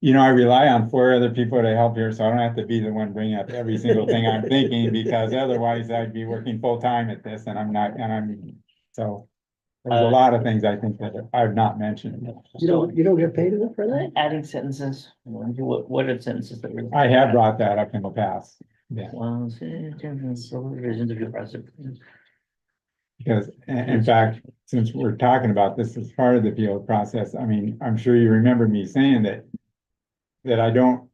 you know, I rely on four other people to help here, so I don't have to be the one bringing up every single thing I'm thinking, because otherwise I'd be working full-time at this, and I'm not, and I'm, so. There's a lot of things I think that I've not mentioned. You don't, you don't get paid enough for that? Adding sentences, what, what are sentences that were? I have brought that up in the past, Well, see, different provisions of your precedent. because i- in fact, since we're talking about this as part of the appeal process, I mean, I'm sure you remember me saying that. That I don't,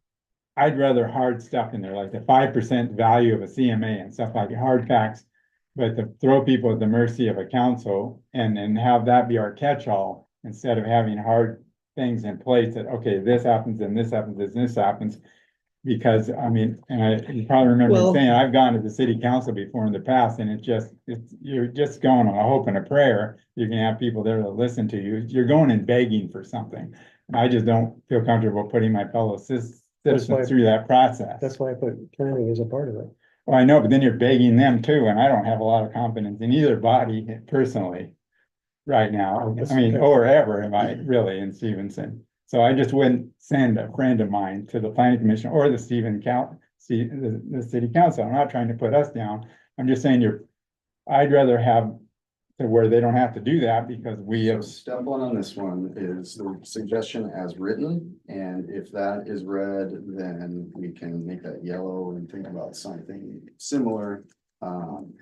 I'd rather hard stuff in there, like the five percent value of a CMA and stuff like hard facts. But to throw people at the mercy of a council and and have that be our catch-all instead of having hard things in place that, okay, this happens and this happens and this happens. Because I mean, and I you probably remember me Well- saying, I've gone to the city council before in the past and it just, it's, you're just going on a hope and a prayer. You're gonna have people there to listen to you. You're going and begging for something. I just don't feel comfortable putting my fellow cis- That's why- citizens through that process. That's why I put planning as a part of it. Well, I know, but then you're begging them too, and I don't have a lot of confidence in either body personally. Right Oh, now, I mean, or ever am I really in Stevenson. So I just wouldn't send a friend of mine to the planning commission or the Stephen count, see, the, the city council. I'm not trying to put us down. I'm just saying you're. I'd rather have to where they don't have to do that because we So have, step one on this one is the suggestion as written, and if that is red, then we can make that yellow and think about something similar. Um,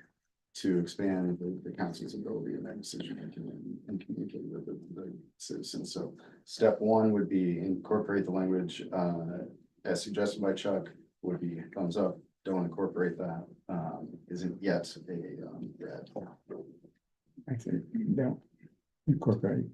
to expand the, the council's ability in that decision making and- and communicate with the, the citizens, so. Step one would be incorporate the language, uh, as suggested by Chuck, would be thumbs up, don't incorporate that, um, isn't yet a, um, red. I say, don't incorporate.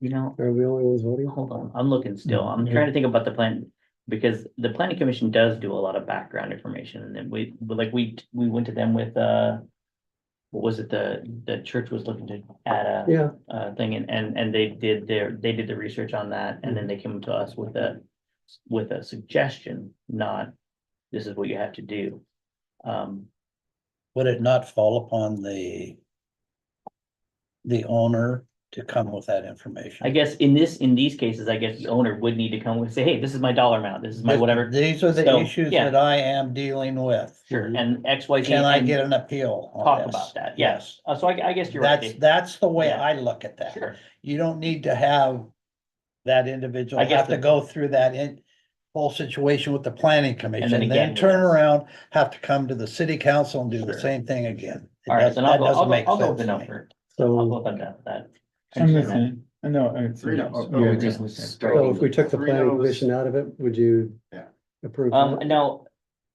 You know, Are we the only ones voting? hold on, I'm looking still, I'm Mm-hmm. trying to think about the plan, because the planning commission does do a lot of background information, and then we, but like, we, we went to them with, uh. What was it, the, the church was looking to add a. Yeah, uh, thing and, and, and they did their, they did the research on that and then they came to us with a, with a suggestion, not this is what you have to do. Um, Would it not fall upon the the owner to come with that information? I guess in this, in these cases, I guess the owner would need to come and say, hey, this is my dollar amount, this is my Th- whatever. These are the So, issues yeah. that I am dealing with. Sure, and X, Y, Z. Can I and- get an appeal on talk this? about that, yeah. Yes. Uh, so I, I guess you're right. That's, that's the way Yeah. I look at Dave. that. Sure, You don't need to have that individual I guess have to the- go through that in whole situation with the planning commission, again then turn with us. around, have to come to the city council and do the Sure. same thing again. It all right, does- then I'll that go, doesn't I'll go, make I'll go with sense the to me. number. I'll go so, with that, that. I'm listening. I know. it's- Three, no, oh, Yeah, oh, just- just- so if we took the Three planning no's. commission out of it, would you? Yeah. Approve? Um, that? no,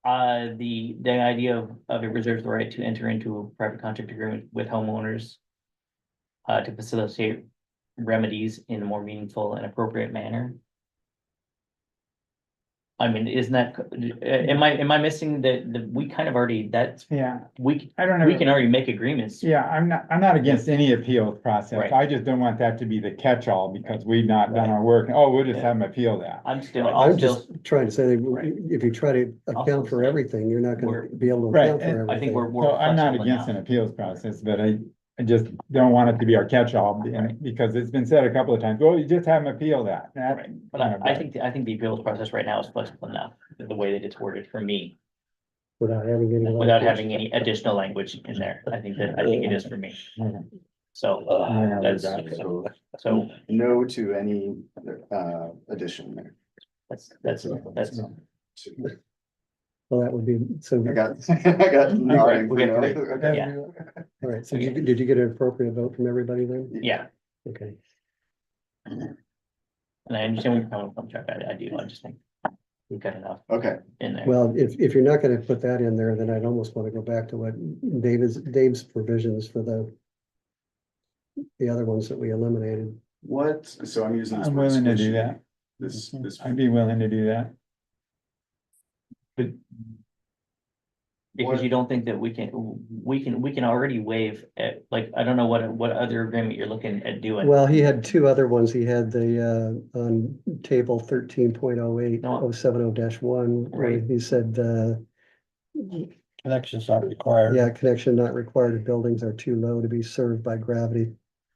uh, the, the idea of, of it reserves the right to enter into a private contract agreement with homeowners. Uh, to facilitate remedies in a more meaningful and appropriate manner. I mean, isn't that, uh, am I, am I missing that, the, we kind of already, that's, Yeah, we, I don't know. we can already make agreements. Yeah, I'm not, I'm not against any appeal process. Right. I just don't want that to be the catch-all because we've not done our work. Oh, we'll just Yeah. have them appeal that. I'm still, I'm I'll still, just trying to say Right. that if you try to account for say- everything, you're not gonna We're- be able to Right, account and for I think everything. we're, we're. So I'm not flexible against an enough. appeals process, but I, I just don't want it to be our catch-all be- Right. because it's been said a couple of times, well, you just have them appeal that. That- Right, But I, I Yeah, think, I think the appeals process right now is flexible enough, the the way that it's worded for me. Without having any. without having any additional language in there. I think that, I think it is for me. So, I don't know that's- about it. So so no to any uh addition there. that's, that's, that's, Well, that would be, so, I got, I got. Right, we got three. Okay. yeah. all right, so did you, did you get an appropriate vote from everybody then? yeah. Okay, And I understand where you're coming from, Chuck. I, I do. I just think we've got enough Okay, in there. well, if, if you're not gonna put that in there, then I'd almost wanna go back to what David's, Dave's provisions for the the other ones that we eliminated. what, so I'm using. this I'm word willing to do squishy. that. This, this, I'd be willing to do that. Because you don't think that we can, we can, we can already waive, at, like, I don't know what, what other agreement you're looking at doing. Well, he had two other ones. He had the, uh, on table thirteen point oh eight, oh seven oh dash one, where Right. he said, uh, Connections not required. yeah, connection not required if buildings are too low to be served by gravity